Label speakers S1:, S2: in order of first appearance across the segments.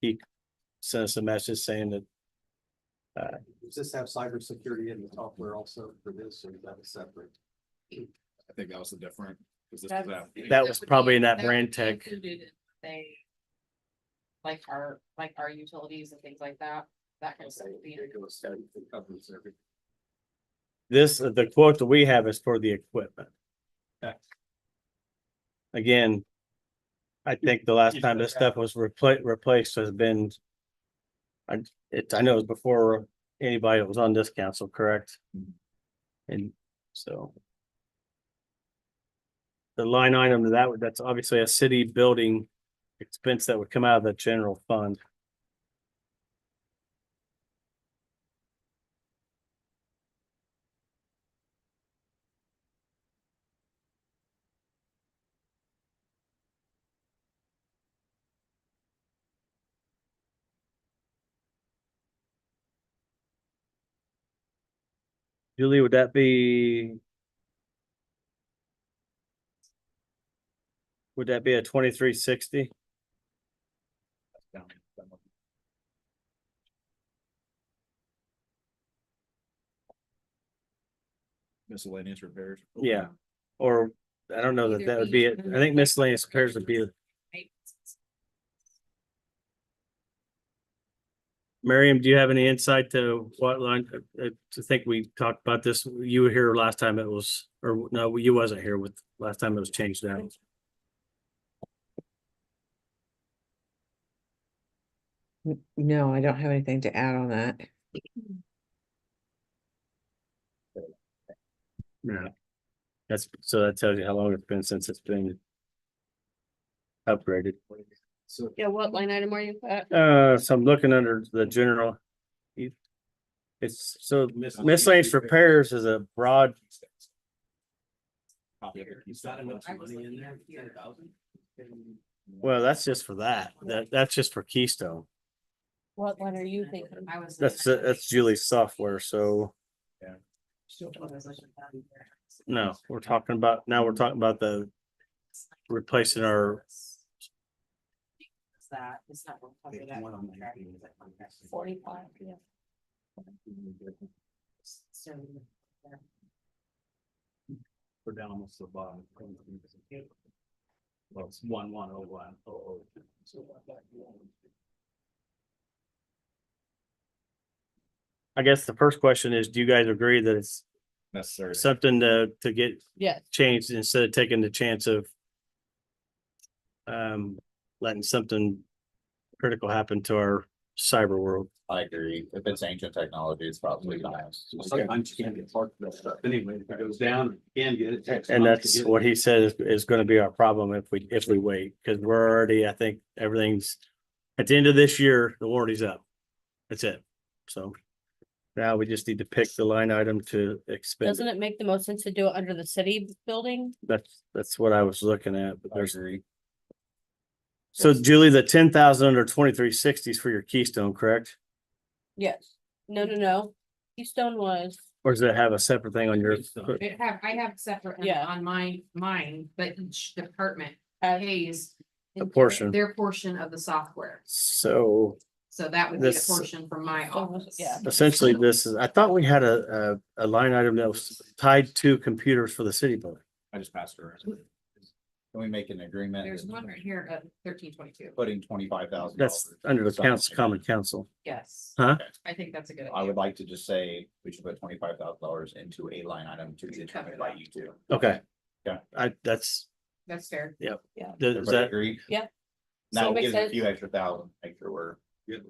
S1: he sent us a message saying that
S2: Does this have cybersecurity in the software also for this or is that separate?
S3: I think that was the different. 'cause this was
S4: That's-
S3: after.
S1: That was
S4: would be-
S1: probably in that
S4: would
S1: brand
S4: be
S1: tech.
S4: included in They. Like our, like our utilities and things like that, that kind of stuff. would be in-
S2: It goes- it covers everything.
S1: this, uh, the quote that we have is for the equipment.
S2: Okay.
S1: Again, I think the last
S2: You
S1: time
S2: said
S1: this
S2: that.
S1: stuff was replaced, replaced has been I, it, I know it was before anybody that was on this council, correct?
S3: Mhm.
S1: And so the line item to that, would- that's obviously a city building expense that would come out of the general fund. Julie, would that be? Would that be a twenty-three sixty?
S3: Miscellaneous repairs.
S1: Yeah. Or, I don't know that
S4: Either
S1: that would
S4: be-
S1: be, it. I think miscellaneous repairs would be,
S4: Right.
S1: Miriam, do you have any insight to what line? uh, uh, I think we talked about this, you were here last time it was, or no, you wasn't here with, last time it was changed out.
S5: N- No, I don't have anything to add on that.
S1: Yeah. That's, so that tells you how long it's been since it's been upgraded.
S2: So
S6: Yeah, what line item are you at?
S1: Uh, so I'm looking under the general. you- It's so miscellaneous repairs is a broad,
S3: Copy of it.
S2: is that uh, enough
S4: I was
S2: money in
S4: looking
S2: there?
S4: up here.
S2: 10,000?
S1: well, that's just for that. That, that's just for Keystone.
S6: What one are you thinking?
S4: I was.
S1: That's, uh, that's Julie's software, so no, we're talking about, now we're talking about the, replacing our-
S4: That, it's not. what we're talking about. Forty-five, yeah. So. yeah.
S2: We're down almost to the bottom. Well, it's one, one, oh, one, oh, oh. So what that one?
S1: I guess the first question is, do you guys agree that it's
S3: Necessary.
S1: something to, to get
S6: Yes.
S1: changed instead of taking the chance of um, letting something critical happen to our cyber world?
S7: I agree. If it's ancient technology, it's probably not.
S2: Well, Sometimes you can't get part of that stuff anyway. If it goes down, you can get it. Takes
S1: And
S2: months to
S1: that's
S2: get it.
S1: what he said is, is gonna be our problem if we, if we wait, because we're already, I think, everything's, at the end of this year, the warranty's up. That's it. So now we just need to pick the line item to expend.
S6: Doesn't
S1: it.
S6: it make the most sense to do it under the city building?
S1: That's, that's what I was looking at, but there's,
S7: agree.
S1: so Julie, the ten thousand under twenty-three sixty is for your Keystone, correct?
S6: Yes. No, no, no. Keystone was,
S1: Or does it have a separate thing on your?
S2: Keystone.
S4: It have, I have separate
S6: Yeah.
S4: on mine, mine, but each department
S6: uh,
S4: pays.
S1: A portion.
S4: Their portion of the software,
S1: So
S4: so that would be a
S1: This-
S4: portion from my office.
S6: yeah.
S1: essentially this is, I thought we had a, a, a line item that was tied to computers for the city building.
S3: I just passed her.
S7: Can we make an agreement?
S4: There's
S7: that
S4: one right here at thirteen twenty-two,
S7: Putting twenty-five thousand.
S1: That's under the council, common council.
S4: yes.
S1: Huh?
S4: I think that's a good.
S7: I
S4: idea.
S7: would like to just say we should put twenty-five thousand dollars into a line item to be determined by you two.
S1: Okay.
S7: Yeah.
S1: I, that's,
S4: That's fair.
S1: does does
S7: Everybody
S1: that,
S7: agree?
S6: Yeah. So
S7: Now
S6: it makes
S7: give a
S6: sense.
S7: few extra thousand, make sure we're.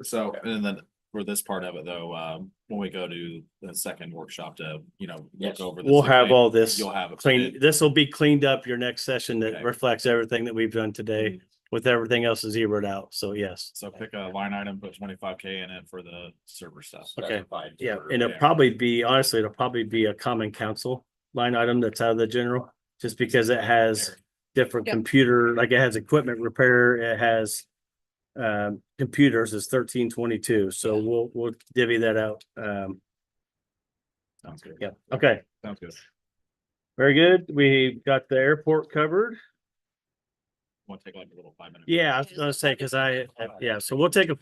S3: So, and then for this part of it though, um, when we go to the second workshop to, you know, look
S7: Yes.
S3: over. this
S1: we'll have
S3: again,
S1: all this
S3: You'll have. it
S1: clean,
S3: printed.
S1: this will be cleaned up your next session
S3: Okay.
S1: that reflects everything that we've done today with everything else zeroed out. So yes.
S3: So pick a line item, put twenty-five K in it for the server stuff.
S1: Okay.
S7: specified
S1: Yeah,
S7: for-
S1: and it'll
S3: yeah.
S1: probably be, honestly, it'll probably be a common council line item that's out of the general, just because it has different
S6: Yep.
S1: computer, like it has equipment repair, it has um, computers is thirteen twenty-two, so we'll, we'll divvy that out. Um,
S3: Sounds good.
S1: yeah, okay,
S3: Sounds good.
S1: very good. We got the airport covered.
S3: Want to take like a little five minute.
S1: Yeah, I was gonna say, cause I, yeah, so we'll take a